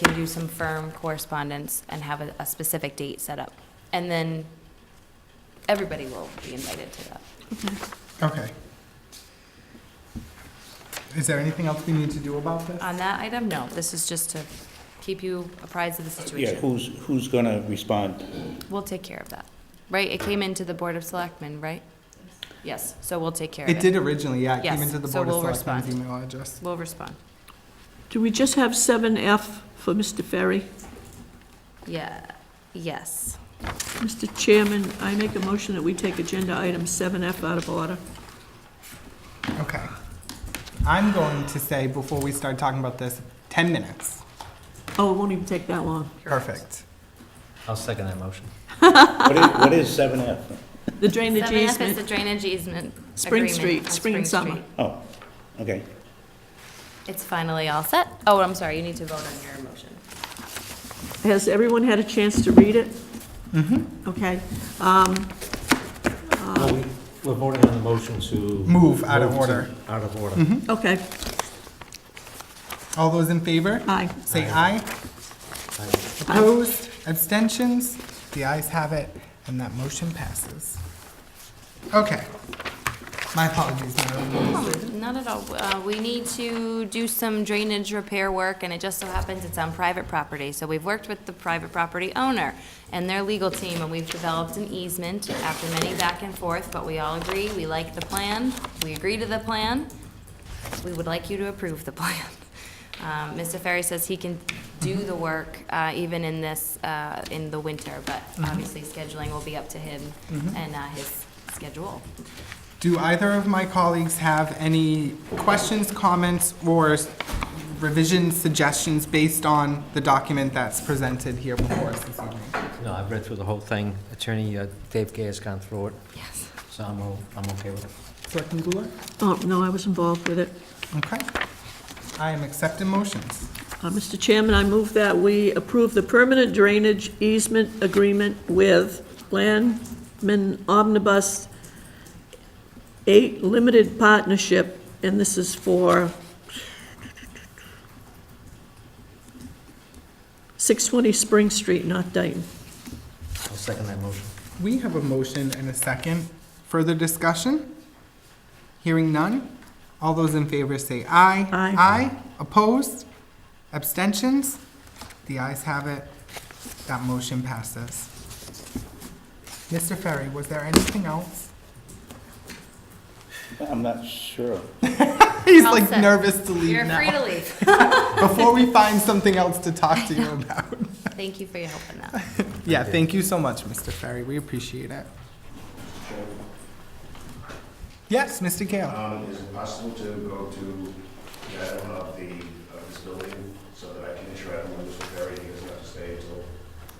can do some firm correspondence and have a, a specific date set up. And then everybody will be invited to that. Okay. Is there anything else we need to do about this? On that item, no, this is just to keep you apprised of the Yeah, situation. who's, who's gonna respond? We'll take care of that, right? It came into the Board of Selectmen, right? Yes, so we'll take care of it. It did originally, yeah, it came Yes, into the so Board of we'll Selectmen's respond. email address. We'll respond. Do we just have seven F for Mr. Ferry? Yeah, yes. Mr. Chairman, I make a motion that we take agenda item seven F out of order. Okay. I'm going to say, before we start talking about this, 10 minutes. Oh, it won't even take that long. Perfect. I'll second that motion. What is, what is seven F? The drainage 7F is the easement, drainage easement. Spring agreement Street, on spring and summer. Street. Oh, okay. It's finally all set. Oh, I'm sorry, you need to vote on your motion. has everyone had a chance to read it? Mm-hmm. Okay. Um, Well, we- We're voting on the motion to. Move out of to- order. Mm-hmm. Out of order. Okay, All those in favor? aye. Say aye. Opposed? Abstentions? The ayes have it, and that motion passes. Okay. My apologies, Madam. Not at all. Uh, We need to do some drainage repair work, and it just so happens it's on private property. So we've worked with the private property owner and their legal team, and we've developed an easement after many back and forth, but we all agree, we like the plan, we agree to the plan. We would like you to approve the plan. Um, Mr. Ferry says he can do the work uh, even in this, uh, in the winter, but obviously scheduling will be up to him and uh, his schedule. Do either of my colleagues have any questions, comments, or revision suggestions based on the document that's presented here before us this evening? No, I've read through the whole thing. Attorney uh, Dave Gay has gone through it, Yes. so I'm, o- I'm okay with it. Selectman Goulart? Oh, no, I was involved with it. Okay. I am accepting motions. Uh, Mr. Chairman, I move that we approve the permanent drainage easement agreement with Landman Omnibus 8 Limited Partnership, and this is for 620 Spring Street, not Dayton. I'll second that motion. We have a motion and a second. Further discussion? Hearing none? All those in favor say aye. Aye. Aye. Opposed? Abstentions? The ayes have it. That motion passes. Mr. Ferry, was there anything else? I'm not sure. He's All like set. nervous to leave You're now. free to leave. Before we find something else to talk to you about. Thank you for your help on that. Yeah, thank you so much, Mr. Ferry. We appreciate it. Yes, Mr. Gale. Um, is it possible to go to the item of the, of this building, so that I can ensure everyone is prepared, he doesn't have to stay until?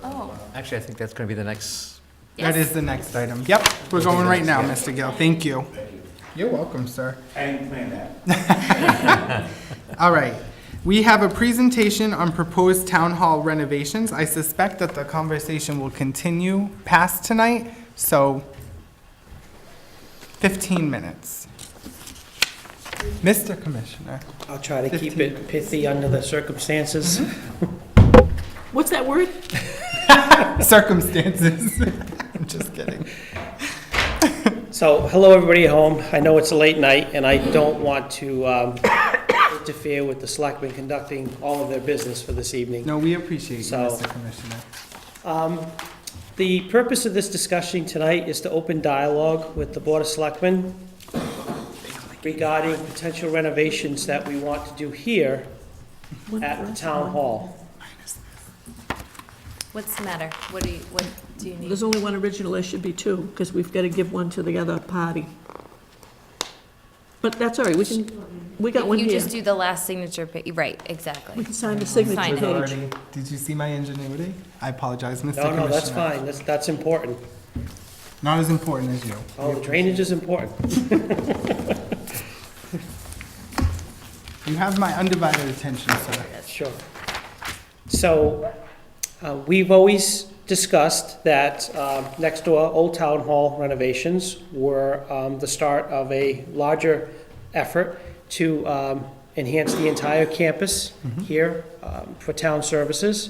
Oh. Actually, I think that's going to be the next, That is the next item. Yep, we're going right now, Mr. Gale. Thank you. Thank you. You're welcome, sir. I didn't plan that. All right. We have a presentation on proposed town hall renovations. I suspect that the conversation will continue past tonight, so 15 minutes. Mr. Commissioner. I'll try to keep it pithy under the circumstances. Mm-hmm. What's that word? circumstances. I'm just kidding. So, hello, everybody at home. I know it's a late night, and I don't want to um, interfere with the selectmen conducting all of their business for this evening. No, we appreciate you, So- Mr. Commissioner. The purpose of this discussion tonight is to open dialogue with the Board of Selectmen regarding potential renovations that we want to do here at the town hall. What's the matter? What do you, what do you need? There's only one original, there should be two, because we've got to give one to the other party. But that's all right, we can, we got one You here. just do the last signature, pa- right, We exactly. can sign the signature Sign it. page. Already- Did you see my ingenuity? I apologize, Mr. No, Commissioner. no, that's fine. That's, that's important. Not as important as you. Oh, drainage is important. You have my undivided attention, sir. Sure. So, uh, we've always discussed that um, next door, Old Town Hall renovations were um, the start of a larger effort to um, enhance the entire campus here um, for town services.